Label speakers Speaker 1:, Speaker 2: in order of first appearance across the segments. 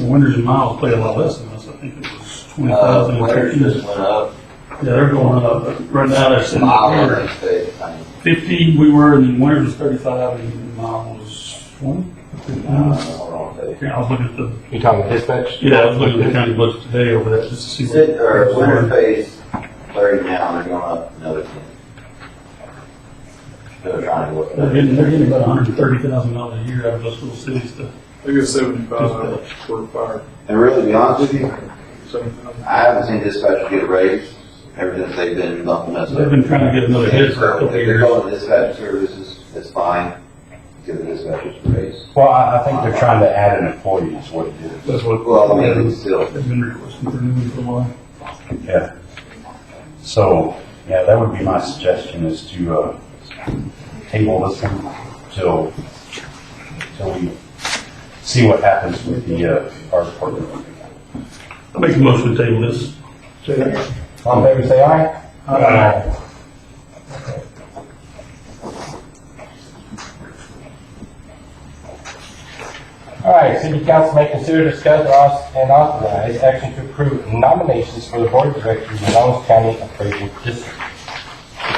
Speaker 1: Winters and Miles paid a lot less than us, I think it was twenty
Speaker 2: Uh,
Speaker 1: thousand.
Speaker 2: Winters just
Speaker 1: Yeah,
Speaker 2: went up,
Speaker 1: they're going up, but right now they're sitting
Speaker 2: Miles, I
Speaker 1: at
Speaker 2: think they, I mean,
Speaker 1: fifty, we were, and then Winters was thirty-five, and Miles was twenty.
Speaker 2: uh, hold on, I'll tell you.
Speaker 1: Here, I was looking at the,
Speaker 3: You talking about dispatch?
Speaker 1: yeah, I was looking at the county budget today over that, just to see. what-
Speaker 2: Sid, or Winter pays thirty now, and they're going up another ten. They're trying to look
Speaker 1: They're
Speaker 2: at it.
Speaker 1: getting, they're getting about hundred and thirty thousand dollars a year out of those little cities to,
Speaker 4: They get seventy-five for fire,
Speaker 2: And really, to be honest with you,
Speaker 4: seventy-five.
Speaker 2: I haven't seen dispatch get raised ever since they've been bumping us up.
Speaker 1: they've been trying to get another hit for a couple
Speaker 2: So,
Speaker 1: of
Speaker 2: If they're
Speaker 1: years.
Speaker 2: going to dispatch services, it's fine, give the dispatchers a raise.
Speaker 3: Well, I, I think they're trying to add an employee is what it is.
Speaker 1: That's what.
Speaker 2: Well, I mean, still,
Speaker 1: They've been requesting for new for a while.
Speaker 3: Yeah. So, yeah, that would be my suggestion is to, uh, table this one till, till we see what happens with the, uh, our department.
Speaker 1: I make a motion to table this.
Speaker 3: All in favor, say aye.
Speaker 2: Uh,
Speaker 3: Aye.
Speaker 5: All right, city council may consider, discuss, and auth- and authorize action to approve nominations for the board of directors of Lowndes County Appraisal District.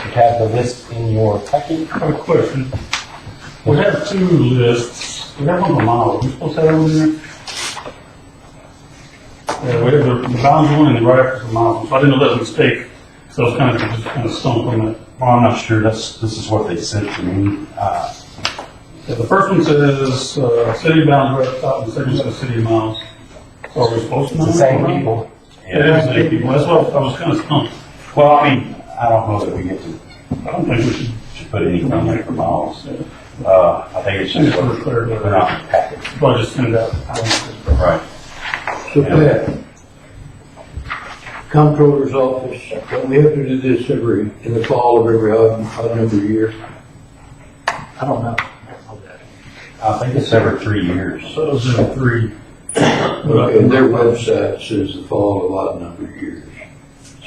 Speaker 5: You have the list in your packet.
Speaker 1: I have a question. We have two lists, we have one for Miles, we supposed to have one in there? Yeah, we have the Miles one and the right after the Miles, so I didn't know that was a mistake, so I was kind of, just kind of stumped on that.
Speaker 3: Well, I'm not sure, that's, this is what they sent to me. Uh,
Speaker 1: Yeah, The first one says, uh, city of bounds right up top, and the second says city of miles. So are we supposed to know?
Speaker 5: It's the same people.
Speaker 1: Yeah, it's the same people, that's what I was kind of stumped,
Speaker 3: Well, I mean, I don't know that we get to,
Speaker 1: I don't think we should,
Speaker 3: should put anything in for miles. Uh, I think it's
Speaker 1: I think
Speaker 3: just,
Speaker 1: it's pretty
Speaker 3: what-
Speaker 1: clear,
Speaker 3: they're
Speaker 1: but
Speaker 3: not packaged.
Speaker 1: probably just send it out. I don't know.
Speaker 3: Right.
Speaker 6: Submit. Comptroller's office, don't we have to do this every, in the fall of every odd, odd number of year?
Speaker 1: I don't know.
Speaker 3: I think it's every three years.
Speaker 1: So those are the three.
Speaker 6: And their website says the fall of odd number of years.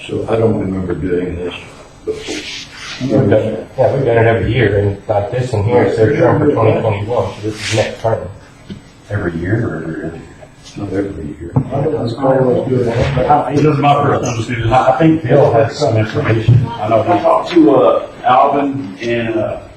Speaker 6: So I don't remember doing this before.
Speaker 5: We've done- Yeah, we've done it every year, and like this one here, it's their term for twenty twenty-one, so this is next term.
Speaker 3: Every year or every other year?
Speaker 6: Not every year.
Speaker 1: This is my first time seeing this.
Speaker 3: I I think Bill has some information. I know
Speaker 7: I
Speaker 3: he
Speaker 7: talked to, uh, Alvin and, uh,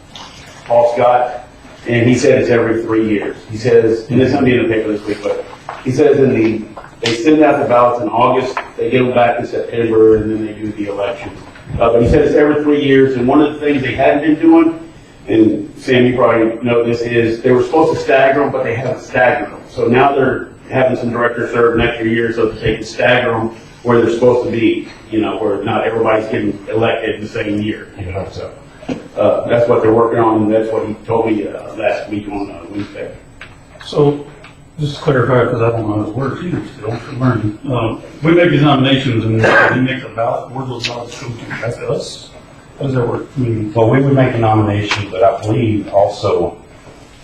Speaker 7: Paul Scott, and he said it's every three years. He says, and it's gonna be in the paper this week, but he says in the, they send out the ballots in August, they give them back in September, and then they do the election. Uh, but he said it's every three years, and one of the things they hadn't been doing, and Sam, you probably know this, is they were supposed to stagger them, but they haven't staggered them. So now they're having some directors serve an extra year so that they can stagger them where they're supposed to be, you know, where not everybody's getting elected the same year, you know, so. Uh, that's what they're working on, and that's what he told me, uh, last week on, uh, Wednesday.
Speaker 1: So, just to clarify, because I don't know how this works either, still, I'm learning. Uh, we make these nominations and we make the ballot, where those ballots go to, that's us? How does that work? I mean,
Speaker 3: Well, we would make a nomination, but I believe also,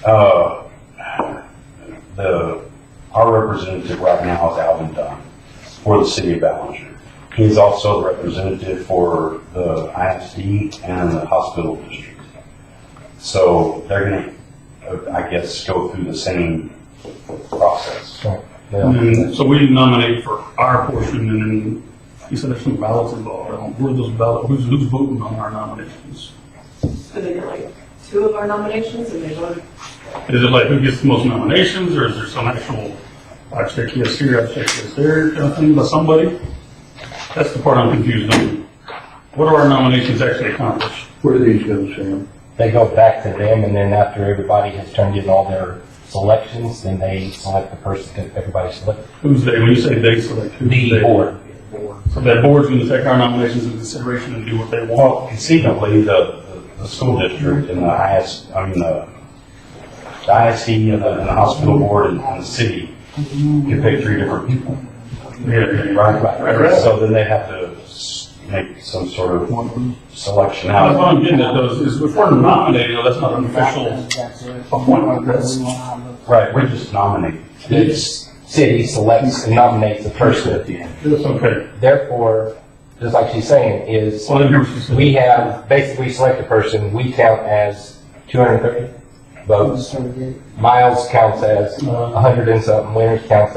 Speaker 3: uh, the, our representative right now is Alvin Dunn for the city of Ballinger. He's also the representative for the ISD and the hospital district. So they're gonna, uh, I guess, go through the same process.
Speaker 5: Yeah.
Speaker 1: And so we nominate for our portion, and then you said there's some ballots involved. I don't- Where are those ballots, who's, who's voting on our nominations?
Speaker 8: So they did like two of our nominations and they voted.
Speaker 1: Is it like who gets the most nominations, or is there some actual, I check yes here, I check yes there, kind of thing by somebody? That's the part I'm confused on. What do our nominations actually accomplish?
Speaker 6: Where do these go, Sam?
Speaker 5: They go back to them, and then after everybody has turned in all their selections, then they select the person that everybody selected.
Speaker 1: Who's they, when you say they select, who's they?
Speaker 5: The board.
Speaker 1: So that board's gonna take our nominations into consideration and do what they want?
Speaker 3: Well, conceivably, the, the- the school district and the IS, I mean, the the ISD and the and the hospital board and and the city, you pick three different people,
Speaker 1: Yeah.
Speaker 3: right?
Speaker 1: right.
Speaker 3: So then they have to s- make some sort of selection
Speaker 1: That's what
Speaker 3: out.
Speaker 1: I'm getting at, though, is- is if we're nominating, though, that's not an official appointment, that's
Speaker 3: Right, we're just nominating.
Speaker 5: Each city selects and nominates a person at the end.
Speaker 1: That's okay.
Speaker 5: Therefore, just like she's saying, is
Speaker 1: Well, then here's what she said.
Speaker 5: we have, basically we select a person, we count as two hundred and thirty votes. Miles counts as a hundred and something, Winters counts